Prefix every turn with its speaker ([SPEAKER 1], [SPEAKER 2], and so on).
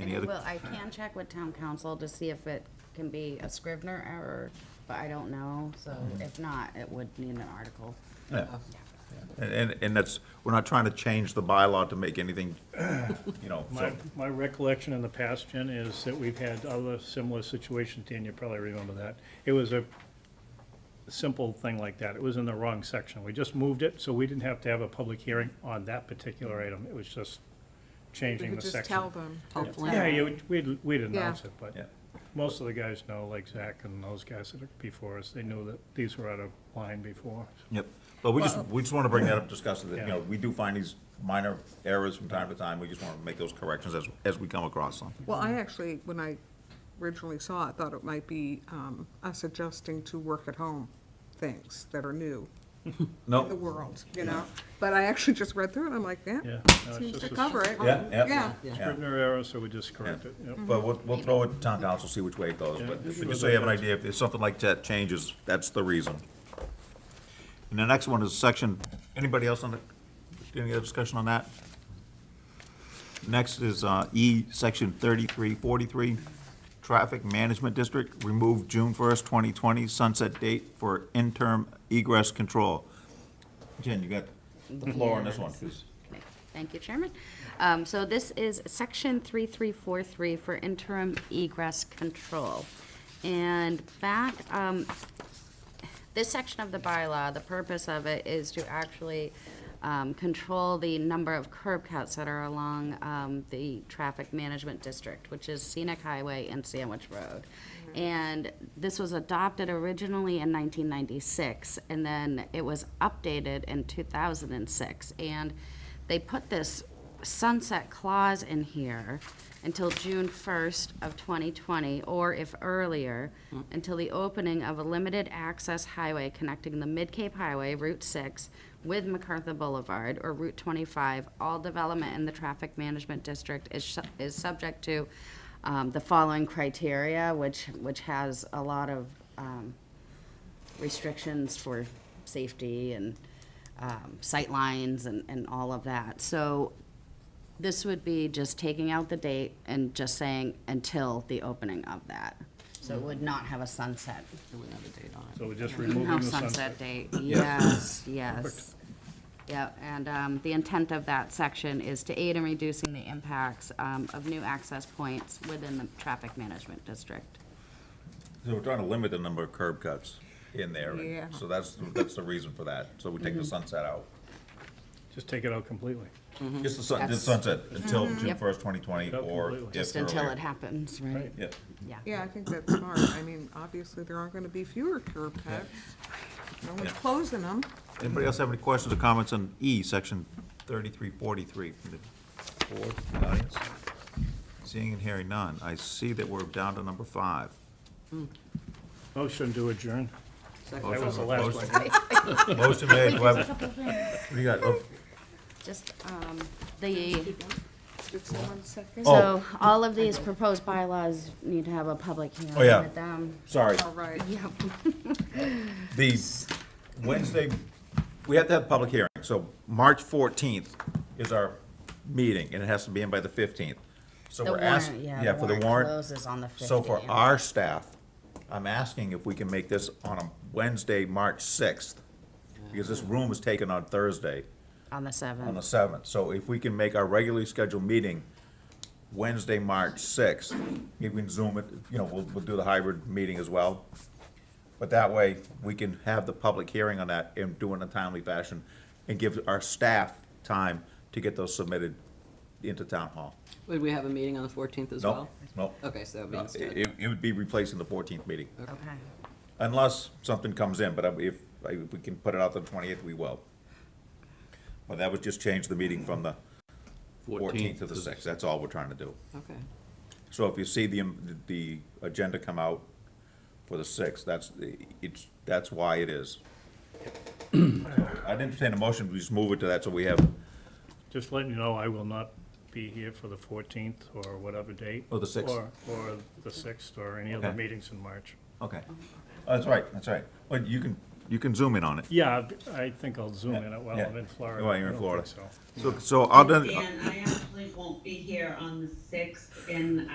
[SPEAKER 1] Any other?
[SPEAKER 2] Well, I can check with town council to see if it can be a Scrivener error, but I don't know, so if not, it would need an article.
[SPEAKER 1] Yeah. And, and- and that's, we're not trying to change the bylaw to make anything, you know,
[SPEAKER 3] My,
[SPEAKER 1] so,
[SPEAKER 3] my recollection in the past, Jen, is that we've had other similar situations, Dan, you probably remember that. It was a simple thing like that, it was in the wrong section, we just moved it, so we didn't have to have a public hearing on that particular item, it was just
[SPEAKER 4] We
[SPEAKER 3] changing
[SPEAKER 4] could
[SPEAKER 3] the
[SPEAKER 4] just
[SPEAKER 3] section.
[SPEAKER 4] tell them.
[SPEAKER 2] Hopefully.
[SPEAKER 3] Yeah, you, would- we'd, we'd announce
[SPEAKER 4] Yeah.
[SPEAKER 3] it, but
[SPEAKER 1] yeah.
[SPEAKER 3] most of the guys know, like Zach and those guys that are before us, they knew that these were out of line before.
[SPEAKER 1] Yep, but we just, we just want to bring that up, discuss it, you know,
[SPEAKER 3] Yeah.
[SPEAKER 1] we do find these minor errors from time to time, we just want to make those corrections as, as we come across them.
[SPEAKER 4] Well, I actually, when I originally saw it, thought it might be um, us adjusting to work-at-home things that are new in the
[SPEAKER 1] No,
[SPEAKER 4] world, you know? But I actually just read through it, I'm like,
[SPEAKER 3] Oh. Yeah.
[SPEAKER 4] yeah,
[SPEAKER 3] no, it's
[SPEAKER 4] seems to
[SPEAKER 3] just a
[SPEAKER 4] cover it.
[SPEAKER 1] yeah, yeah,
[SPEAKER 4] Yeah.
[SPEAKER 1] yeah.
[SPEAKER 3] Scrivener error, so we just correct it, yep.
[SPEAKER 1] But we'll, we'll throw it to town council, see which way it goes, but but just so you have an idea, if something like that changes, that's the reason. And the next one is section, anybody else on the, any other discussion on that? Next is uh, E, section thirty-three forty-three, traffic management district, remove June first, twenty twenty, sunset date for interim egress control. Jen, you got the floor on this one, 'cause-
[SPEAKER 2] Okay. Thank you, Chairman. Um, So this is Section 3343 for interim egress control. And back, um, this section of the bylaw, the purpose of it is to actually um, control the number of curb cuts that are along um, the traffic management district, which is Scenic Highway and Sandwich Road. And this was adopted originally in 1996, and then it was updated in 2006. And they put this sunset clause in here until June 1st of 2020, or if earlier, until the opening of a limited access highway connecting the Mid-Cape Highway, Route 6, with MacArthur Boulevard or Route 25. All development in the Traffic Management District is, su- is subject to um, the following criteria, which, which has a lot of um, restrictions for safety and um, sight lines and, and all of that. So this would be just taking out the date and just saying until the opening of that. So it would not have a sunset.
[SPEAKER 5] It wouldn't have a date on it.
[SPEAKER 3] So we're just
[SPEAKER 2] No
[SPEAKER 3] removing the
[SPEAKER 2] sunset date, yes, yes. Yep, and um, the intent of that section is to aid in reducing the impacts um, of new access points within the traffic management district.
[SPEAKER 1] So we're trying to limit the number of curb cuts in there, and
[SPEAKER 4] Yeah.
[SPEAKER 1] so that's, that's the reason for that, so we take
[SPEAKER 2] Mm-hmm.
[SPEAKER 1] the sunset out.
[SPEAKER 3] Just take it out completely.
[SPEAKER 1] Just the sun, just
[SPEAKER 2] That's- Mm-hmm.
[SPEAKER 1] sunset, until June
[SPEAKER 2] Yep.
[SPEAKER 1] first, twenty twenty,
[SPEAKER 3] Yep,
[SPEAKER 1] or
[SPEAKER 3] completely.
[SPEAKER 1] if
[SPEAKER 2] Just until
[SPEAKER 1] earlier.
[SPEAKER 2] it happens, right?
[SPEAKER 3] Right.
[SPEAKER 1] Yeah,
[SPEAKER 2] Yeah.
[SPEAKER 4] Yeah, I think that's smart. I mean, obviously, there aren't gonna be fewer curb cuts. No one's
[SPEAKER 1] Yeah.
[SPEAKER 4] closing them.
[SPEAKER 1] anybody else have any questions or comments on E, section thirty-three forty-three from the board, from the audience? Seeing and hearing none, I see that we're down to number five.
[SPEAKER 3] Motion to adjourn. That was the last one.
[SPEAKER 1] one. Motion made, do I have- what do you got? Oh,
[SPEAKER 2] Just um, the,
[SPEAKER 4] Did someone second?
[SPEAKER 1] Oh.
[SPEAKER 2] so all of these proposed bylaws need to have a public hearing
[SPEAKER 1] Oh, yeah.
[SPEAKER 2] with them.
[SPEAKER 1] Sorry,
[SPEAKER 4] All right.
[SPEAKER 2] Yep.
[SPEAKER 1] the Wednesday, we have to have public hearing, so March fourteenth is our meeting, and it has to be in by the fifteenth. So
[SPEAKER 2] The
[SPEAKER 1] we're asked,
[SPEAKER 2] warrant, yeah,
[SPEAKER 1] yeah,
[SPEAKER 2] the
[SPEAKER 1] for the
[SPEAKER 2] warrant
[SPEAKER 1] warrant.
[SPEAKER 2] closes on the
[SPEAKER 1] So for
[SPEAKER 2] 15th.
[SPEAKER 1] our staff, I'm asking if we can make this on a Wednesday, March sixth, because this room was taken on Thursday,
[SPEAKER 2] On the
[SPEAKER 1] on the
[SPEAKER 2] 7th.
[SPEAKER 1] seventh. So if we can make our regularly scheduled meeting Wednesday, March sixth, we can zoom it, you know, we'll, we'll do the hybrid meeting as well. But that way, we can have the public hearing on that and do it in a timely fashion and give our staff time to get those submitted into town hall.
[SPEAKER 5] Would we have a meeting on the fourteenth as
[SPEAKER 1] No,
[SPEAKER 5] well?
[SPEAKER 1] no.
[SPEAKER 5] Okay, so that would be
[SPEAKER 1] No,
[SPEAKER 5] instead.
[SPEAKER 1] It, it would be replacing the fourteenth meeting,
[SPEAKER 2] Okay.
[SPEAKER 1] unless something comes in, but if, if we can put it out the twentieth, we will. But that would just change the meeting from the fourteenth to the sixth, that's all we're trying to do.
[SPEAKER 5] Okay.
[SPEAKER 1] So if you see the, um, the agenda come out for the sixth, that's, the it's, that's why it is. I'd entertain a motion, we just move it to that, so we have,
[SPEAKER 3] Just letting you know, I will not be here for the fourteenth or whatever date.
[SPEAKER 1] Or the 6th.
[SPEAKER 3] Or, or the sixth, or any other
[SPEAKER 1] Okay.
[SPEAKER 3] meetings in March.
[SPEAKER 1] okay. Oh, That's right, that's right. Well, you can, You can zoom in on it.
[SPEAKER 3] Yeah, I think I'll zoom in while I'm in Florida.
[SPEAKER 1] Well, you're in
[SPEAKER 3] I don't
[SPEAKER 1] Florida.
[SPEAKER 3] think so.
[SPEAKER 1] So, so I'll,
[SPEAKER 6] And I actually won't be here on the sixth, and